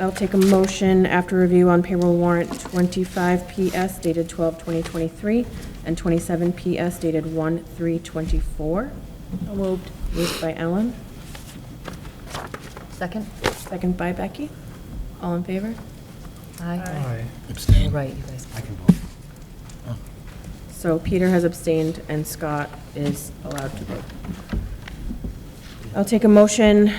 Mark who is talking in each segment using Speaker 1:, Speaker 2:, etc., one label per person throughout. Speaker 1: I'll take a motion after review on payroll warrant 25 PS dated 12/2023 and 27 PS dated 1/3/24.
Speaker 2: moved.
Speaker 1: Moved by Ellen,
Speaker 2: Second?
Speaker 1: second by Becky. All in favor?
Speaker 2: Aye.
Speaker 3: Aye.
Speaker 2: All
Speaker 4: Abstain.
Speaker 2: right, you guys.
Speaker 4: I can vote.
Speaker 1: So Peter has abstained and Scott is allowed to vote. I'll take a motion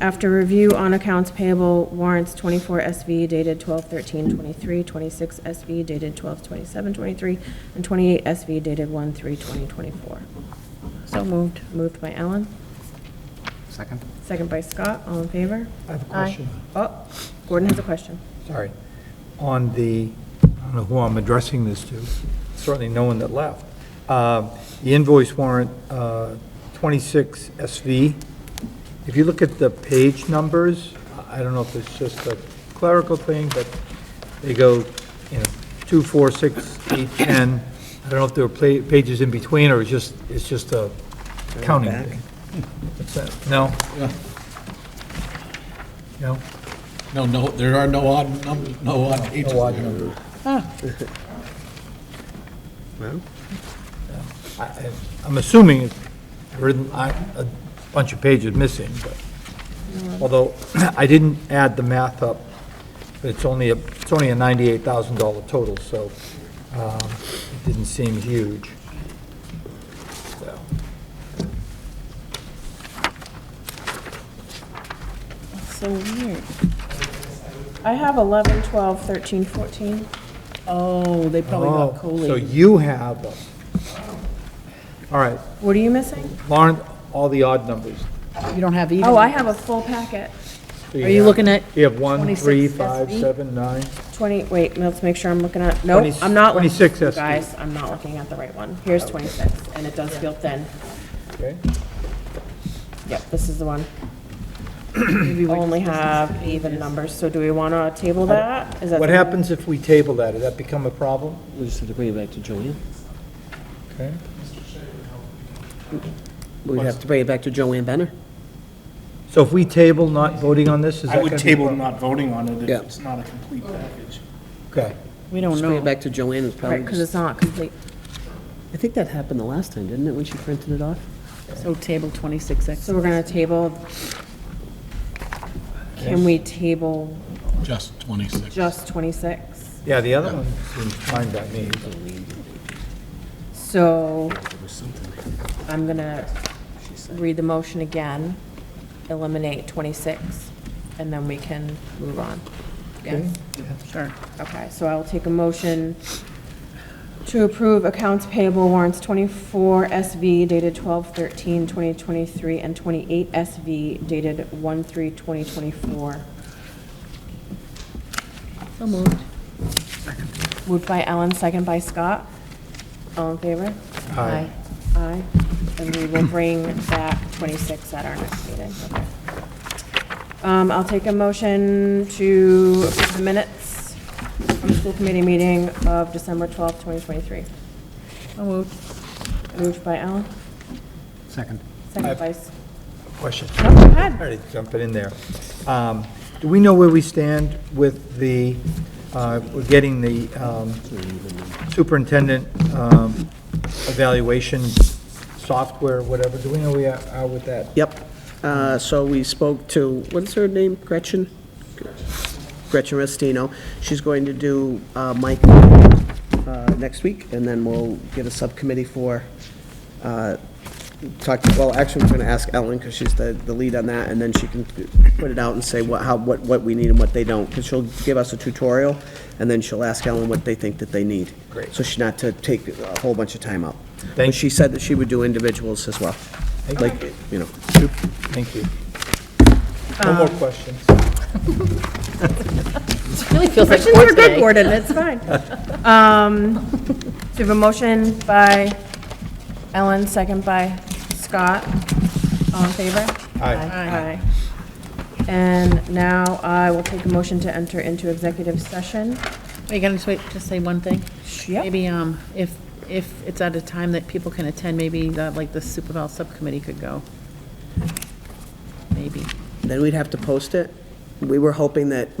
Speaker 1: after review on accounts payable warrants 24 SV dated 12/13/23, 26 SV dated 12/27/23, and 28 SV dated 1/3/2024.
Speaker 2: So moved.
Speaker 1: Moved by Ellen,
Speaker 4: Second?
Speaker 1: second by Scott, all in favor?
Speaker 3: I have a question.
Speaker 1: Oh, Gordon has a question.
Speaker 3: Sorry. On the, I don't know who I'm addressing this to, certainly no one that left. Uh, The invoice warrant, uh, 26 SV, if you look at the page numbers, I I don't know if it's just a clerical thing, but they go, you know, 2, 4, 6, 8, 10. I don't know if there were pla- pages in between, or it's just, it's just a counting thing. What's that? No? No?
Speaker 5: No, no, there are no odd numbers, no odd pages
Speaker 3: No odd
Speaker 5: there.
Speaker 3: numbers. I- I- I'm assuming it's written, I- a bunch of pages missing, but, although I didn't add the math up, but it's only, a it's only a $98,000 total, so um, it didn't seem huge. So,
Speaker 1: So weird. I have 11, 12, 13, 14.
Speaker 6: Oh, they probably
Speaker 3: Oh,
Speaker 6: got
Speaker 3: so
Speaker 6: collated.
Speaker 3: you have, them. all right,
Speaker 1: What are you missing?
Speaker 3: Lauren, all the odd numbers.
Speaker 6: You don't have even.
Speaker 1: Oh, I have a full packet.
Speaker 3: So
Speaker 6: Are you
Speaker 3: have-
Speaker 6: looking at
Speaker 3: You have 1, 3,
Speaker 6: 26
Speaker 3: five,
Speaker 6: SV?
Speaker 3: seven, nine.
Speaker 1: 20, wait, let's make sure I'm looking at, nope,
Speaker 3: Twenty-
Speaker 1: I'm not. looking-
Speaker 3: 26 SD.
Speaker 1: Guys, I'm not looking at the right one. Here's 26, and it does feel thin.
Speaker 3: okay?
Speaker 1: Yep, this is the one.
Speaker 6: Maybe
Speaker 1: We
Speaker 6: we-
Speaker 1: only have even numbers, so do we want to table that? Is that
Speaker 3: What
Speaker 1: something-
Speaker 3: happens if we table that? Does that become a problem?
Speaker 7: We'll just have to bring it back to Joanne.
Speaker 3: Okay.
Speaker 7: We'd have to bring it back to Joanne Benner.
Speaker 3: So if we table not voting on this, is that
Speaker 8: I
Speaker 3: going to
Speaker 8: would table not voting on it
Speaker 7: Yeah.
Speaker 8: if it's not a complete package.
Speaker 3: Okay.
Speaker 6: We don't
Speaker 7: Just bring
Speaker 6: know.
Speaker 7: it back to Joanne is
Speaker 1: Right, because
Speaker 7: probably,
Speaker 1: it's not complete.
Speaker 7: I think that happened the last time, didn't it, when she printed it off?
Speaker 6: So table 26X.
Speaker 1: So we're going to table. Can we table
Speaker 5: Just 26.
Speaker 1: just 26?
Speaker 3: Yeah, the other one seems fine by me.
Speaker 1: So I'm going to read the motion again, eliminate 26, and then we can move on. Yes?
Speaker 6: Sure.
Speaker 1: Okay, so I'll take a motion to approve accounts payable warrants 24 SV dated 12/13/2023 and 28 SV dated 1/3/2024.
Speaker 6: So moved.
Speaker 1: Moved by Ellen, second by Scott. All in favor?
Speaker 3: Aye.
Speaker 1: Aye. And we will bring back 26 at our next meeting. Okay. Um, I'll take a motion to approve the minutes from the school committee meeting of December 12th, 2023.
Speaker 6: So moved.
Speaker 1: Moved by Ellen,
Speaker 4: Second.
Speaker 1: second by, S-
Speaker 3: Question.
Speaker 1: no, go ahead.
Speaker 3: Sorry to jump it in there. Um, Do we know where we stand with the, uh, we're getting the um, superintendent um, evaluation software, whatever? Do we know where we are with that?
Speaker 7: Yep. Uh, So we spoke to, what is her name, Gretchen? Gretchen Restino. She's going to do uh, Mike uh, next week, and then we'll get a subcommittee for, uh, talk, to- well, actually, we're going to ask Ellen, because she's the, the lead on that, and then she can put it out and say what, how, what, what we need and what they don't, because she'll give us a tutorial, and then she'll ask Ellen what they think that they need.
Speaker 3: Great.
Speaker 7: So she not to take a whole bunch of time out.
Speaker 3: Thank-
Speaker 7: But she said that she would do individuals as well,
Speaker 3: Thank you.
Speaker 7: like, you know.
Speaker 3: Thank you. No more questions.
Speaker 2: Really feels like
Speaker 1: Questions
Speaker 2: court
Speaker 1: are good,
Speaker 2: today.
Speaker 1: Gordon, it's fine. Um, So we have a motion by Ellen, second by Scott. All in favor?
Speaker 3: Aye.
Speaker 1: Aye. And now I will take a motion to enter into executive session.
Speaker 6: Are you going to just say one thing?
Speaker 1: Yep.
Speaker 6: Maybe um, if, if it's at a time that people can attend, maybe that, like the Super Bowl Subcommittee could go. Maybe.
Speaker 7: Then we'd have to post it. We were hoping that